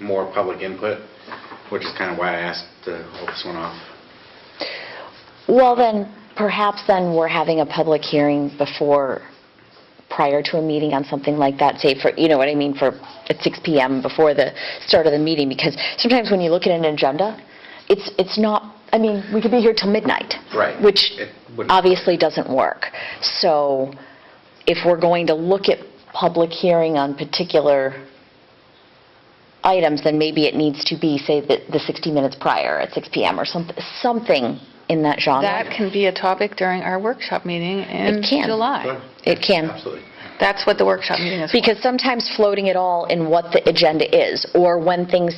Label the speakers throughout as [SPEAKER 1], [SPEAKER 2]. [SPEAKER 1] more public input, which is kind of why I asked to hold this one off.
[SPEAKER 2] Well, then, perhaps then we're having a public hearing before, prior to a meeting on something like that, say for, you know what I mean, for, at 6 PM before the start of the meeting, because sometimes when you look at an agenda, it's, it's not, I mean, we could be here till midnight.
[SPEAKER 1] Right.
[SPEAKER 2] Which
[SPEAKER 1] It wouldn't-
[SPEAKER 2] obviously doesn't work. So if we're going to look at public hearing on particular items, then maybe it needs to be, say, the the 60 minutes prior at 6 PM or something, something in that genre.
[SPEAKER 3] That can be a topic during our workshop meeting in
[SPEAKER 2] It can.
[SPEAKER 3] July.
[SPEAKER 1] Sure.
[SPEAKER 2] It can.
[SPEAKER 1] Absolutely.
[SPEAKER 3] That's what the workshop meeting is for.
[SPEAKER 2] Because sometimes floating it all in what the agenda is, or when things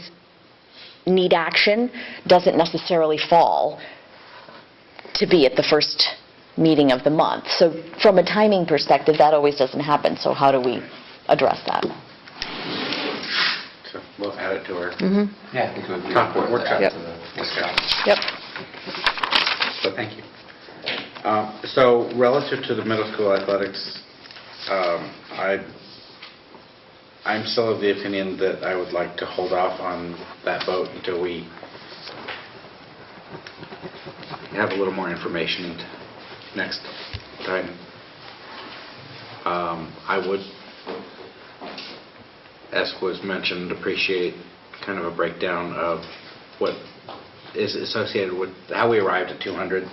[SPEAKER 2] need action, doesn't necessarily fall to be at the first meeting of the month. So from a timing perspective, that always doesn't happen, so how do we address that?
[SPEAKER 1] So we'll add it to our
[SPEAKER 2] Mm-hmm.
[SPEAKER 4] Yeah, I think it would be.
[SPEAKER 1] Top work- workshop.
[SPEAKER 3] Yep.
[SPEAKER 1] discussion.
[SPEAKER 3] Yep.
[SPEAKER 1] So thank you. Um, So relative to the middle school athletics, um, I, I'm still of the opinion that I would like to hold off on that vote until we have a little more information next time. Um, I would, as was mentioned, appreciate kind of a breakdown of what is associated with, how we arrived at 200.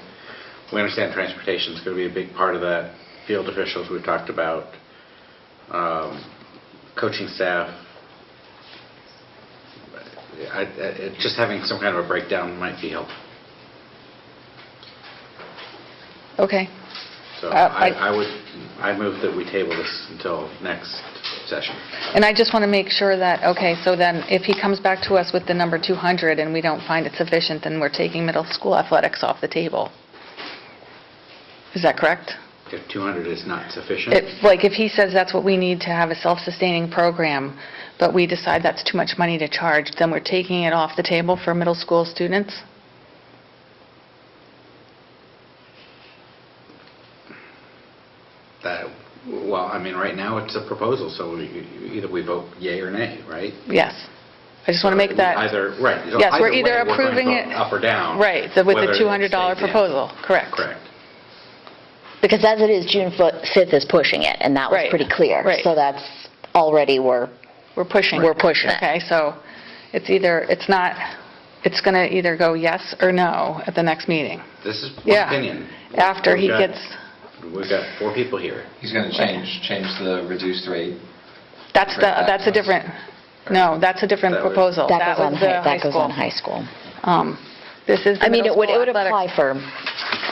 [SPEAKER 1] We understand transportation's going to be a big part of that, field officials we've talked about, um, coaching staff. I- I- it- Just having some kind of a breakdown might be helpful.
[SPEAKER 3] Okay.
[SPEAKER 1] So
[SPEAKER 3] Uh,
[SPEAKER 1] I
[SPEAKER 3] I-
[SPEAKER 1] I would, I move that we table this until next session.
[SPEAKER 3] And I just want to make sure that, okay, so then if he comes back to us with the number 200 and we don't find it sufficient, then we're taking middle school athletics off the table. Is that correct?
[SPEAKER 1] If 200 is not sufficient.
[SPEAKER 3] If, like, if he says that's what we need to have a self-sustaining program, but we decide that's too much money to charge, then we're taking it off the table for middle school students?
[SPEAKER 1] That, well, I mean, right now, it's a proposal, so we- either we vote yay or nay, right?
[SPEAKER 3] Yes. I just want to make that...
[SPEAKER 1] Either, right. so
[SPEAKER 3] Yes, we're either
[SPEAKER 1] way, we're going to
[SPEAKER 3] approving
[SPEAKER 1] vote
[SPEAKER 3] it-
[SPEAKER 1] Up or down.
[SPEAKER 3] Right, the- with
[SPEAKER 1] whether
[SPEAKER 3] the
[SPEAKER 1] it
[SPEAKER 3] $200
[SPEAKER 1] stays in.
[SPEAKER 3] proposal, correct.
[SPEAKER 1] Correct.
[SPEAKER 2] Because as it is, June fo- 5th is pushing it, and that was
[SPEAKER 3] Right,
[SPEAKER 2] pretty clear.
[SPEAKER 3] right.
[SPEAKER 2] So that's already, we're,
[SPEAKER 3] We're pushing.
[SPEAKER 2] We're pushing it.
[SPEAKER 3] Okay, so it's either, it's not, it's going to either go yes or no at the next meeting.
[SPEAKER 1] This is my
[SPEAKER 3] Yeah.
[SPEAKER 1] opinion.
[SPEAKER 3] After he
[SPEAKER 1] We've got-
[SPEAKER 3] gets,
[SPEAKER 1] We've got four people here.
[SPEAKER 4] He's going to change, change the reduced rate.
[SPEAKER 3] that's the,
[SPEAKER 4] Right back
[SPEAKER 3] that's a
[SPEAKER 4] to us.
[SPEAKER 3] different, no, that's a different
[SPEAKER 1] That was-
[SPEAKER 3] proposal.
[SPEAKER 2] that goes on,
[SPEAKER 3] was
[SPEAKER 2] hi-
[SPEAKER 3] the
[SPEAKER 2] that goes
[SPEAKER 3] school.
[SPEAKER 2] on high school.
[SPEAKER 3] Um, This is
[SPEAKER 2] I
[SPEAKER 3] the
[SPEAKER 2] mean,
[SPEAKER 3] middle
[SPEAKER 2] it would, it
[SPEAKER 3] school
[SPEAKER 2] would
[SPEAKER 3] athletics.
[SPEAKER 2] apply for,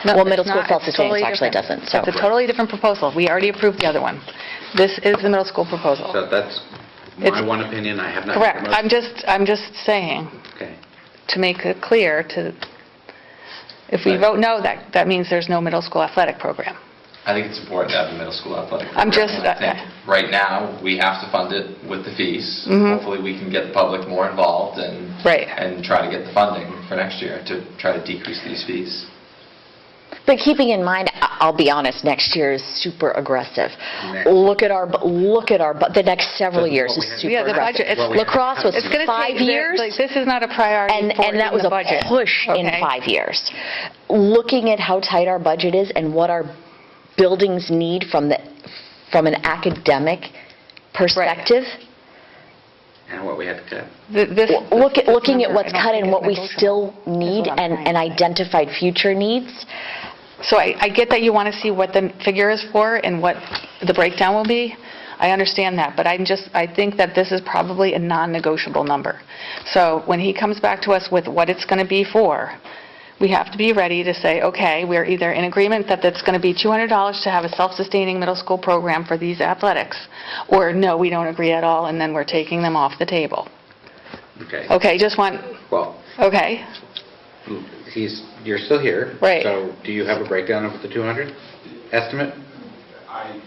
[SPEAKER 3] No,
[SPEAKER 2] well,
[SPEAKER 3] it's
[SPEAKER 2] middle school
[SPEAKER 3] not. It's
[SPEAKER 2] self-sustained
[SPEAKER 3] totally
[SPEAKER 2] actually
[SPEAKER 3] different.
[SPEAKER 2] doesn't, so.
[SPEAKER 3] It's a totally different proposal. We already approved the other one. This is the middle school proposal.
[SPEAKER 1] So that's my
[SPEAKER 3] It's-
[SPEAKER 1] one opinion. I have not. made a
[SPEAKER 3] Correct.
[SPEAKER 1] motion.
[SPEAKER 3] I'm just, I'm just saying.
[SPEAKER 1] Okay.
[SPEAKER 3] to make it clear to, if we
[SPEAKER 1] Right.
[SPEAKER 3] vote no, that, that means there's no middle school athletic program.
[SPEAKER 4] I think it's important to have the middle school athletic.
[SPEAKER 3] I'm
[SPEAKER 4] program,
[SPEAKER 3] just- uh,
[SPEAKER 4] and I think Right now, we have to fund it with the fees. Hopefully, we can get the public more involved and.
[SPEAKER 3] Mm-hmm. Right.
[SPEAKER 4] And try to get the funding for next year to try to decrease these fees.
[SPEAKER 2] But keeping in mind, I- I'll be honest, next year is super aggressive.
[SPEAKER 1] Next.
[SPEAKER 2] Look at our, bu- look at our, bu- the next several years is
[SPEAKER 1] What we have-
[SPEAKER 2] super
[SPEAKER 3] Yeah, the budget,
[SPEAKER 2] aggressive.
[SPEAKER 3] it's- What
[SPEAKER 1] we have-
[SPEAKER 2] Lacrosse was
[SPEAKER 3] It's going to
[SPEAKER 2] five
[SPEAKER 3] take,
[SPEAKER 2] years,
[SPEAKER 3] years. like, this is not a priority
[SPEAKER 2] and,
[SPEAKER 3] for it
[SPEAKER 2] and that
[SPEAKER 3] in
[SPEAKER 2] was
[SPEAKER 3] the
[SPEAKER 2] a
[SPEAKER 3] budget.
[SPEAKER 2] push in
[SPEAKER 3] Okay.
[SPEAKER 2] five years. Looking at how tight our budget is and what our buildings need from the, from an academic perspective,
[SPEAKER 1] And what we had to cut.
[SPEAKER 3] Th- This.
[SPEAKER 2] Well, Look at,
[SPEAKER 3] this
[SPEAKER 2] looking at
[SPEAKER 3] number, I
[SPEAKER 2] what's
[SPEAKER 3] don't
[SPEAKER 2] cut
[SPEAKER 3] think
[SPEAKER 2] and
[SPEAKER 3] is
[SPEAKER 2] what we
[SPEAKER 3] negotiable.
[SPEAKER 2] still
[SPEAKER 3] what
[SPEAKER 2] need
[SPEAKER 3] I'm
[SPEAKER 2] and,
[SPEAKER 3] trying
[SPEAKER 2] and
[SPEAKER 3] to say.
[SPEAKER 2] identified future needs,
[SPEAKER 3] So I, I get that you want to see what the figure is for and what the breakdown will be. I understand that, but I'm just, I think that this is probably a non-negotiable number. So when he comes back to us with what it's going to be for, we have to be ready to say, okay, we're either in agreement that it's going to be $200 to have a self-sustaining middle school program for these athletics, or no, we don't agree at all, and then we're taking them off the table.
[SPEAKER 1] Okay.
[SPEAKER 3] Okay, just want,
[SPEAKER 1] Well,
[SPEAKER 3] okay,
[SPEAKER 1] he's, you're still here.
[SPEAKER 3] Right.
[SPEAKER 1] So do you have a breakdown of the 200 estimate?
[SPEAKER 5] I,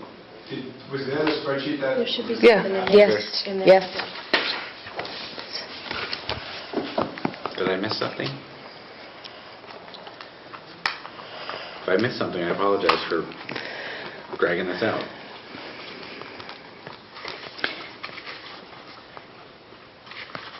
[SPEAKER 5] did, was there a spreadsheet that?
[SPEAKER 6] There should be
[SPEAKER 3] Yeah.
[SPEAKER 6] something else.
[SPEAKER 2] yes,
[SPEAKER 6] in there.
[SPEAKER 2] yes.
[SPEAKER 1] Did I miss something? If I missed something, I apologize for dragging this out.